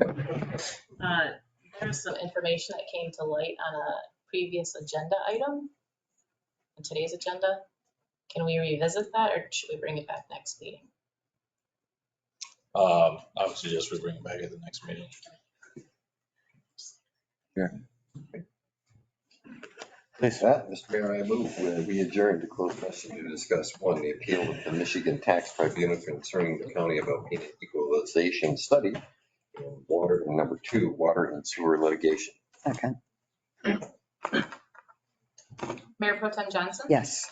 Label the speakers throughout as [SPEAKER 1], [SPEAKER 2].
[SPEAKER 1] Uh, There's some information that came to light on a previous agenda item, on today's agenda. Can we revisit that or should we bring it back next meeting?
[SPEAKER 2] Um, I would suggest we bring it back at the next meeting.
[SPEAKER 3] With that, Mr. Mayor, I move uh, we adjourn to closed session to discuss, one, the appeal of the Michigan Tax Tribunal concerning the County of Alpena Equalization Study, and water, and number two, water and sewer litigation.
[SPEAKER 4] Second,
[SPEAKER 1] Mayor Pro Tem Johnson?
[SPEAKER 4] yes.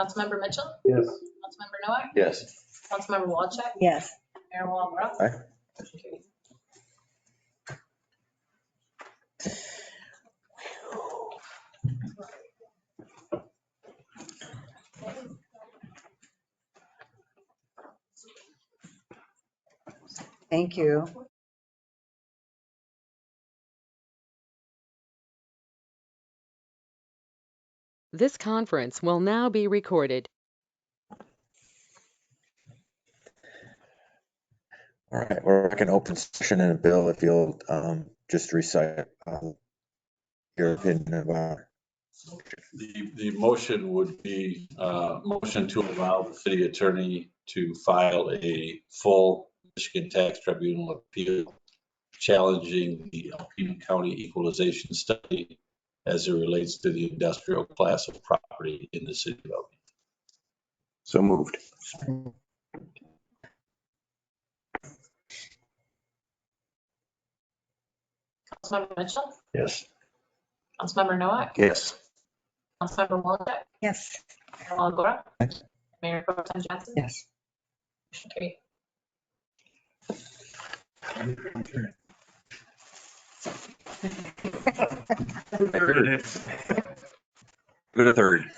[SPEAKER 1] Councilmember Mitchell?
[SPEAKER 5] Yes.
[SPEAKER 1] Councilmember Noah?
[SPEAKER 3] Yes.
[SPEAKER 1] Councilmember Walchek?
[SPEAKER 4] Yes.
[SPEAKER 1] Mayor Walagora?
[SPEAKER 3] Aye.
[SPEAKER 1] Motion carries.
[SPEAKER 4] Thank you.
[SPEAKER 6] This conference will now be recorded.
[SPEAKER 7] All right, we're back in open session and Bill, if you'll um just recite um, your opinion about
[SPEAKER 2] The, the motion would be, uh, motion to allow the city attorney to file a full Michigan Tax Tribunal appeal challenging the Alpena County equalization study as it relates to the industrial class of property in the city of Alpena.
[SPEAKER 3] So moved.
[SPEAKER 1] Councilmember Mitchell?
[SPEAKER 3] Yes.
[SPEAKER 1] Councilmember Noah?
[SPEAKER 3] Yes.
[SPEAKER 1] Councilmember Walchek?
[SPEAKER 4] Yes.
[SPEAKER 1] Mayor Walagora?
[SPEAKER 7] Yes.
[SPEAKER 1] Mayor Pro Tem Johnson?
[SPEAKER 4] Yes.
[SPEAKER 1] Motion carries.
[SPEAKER 3] Good a third.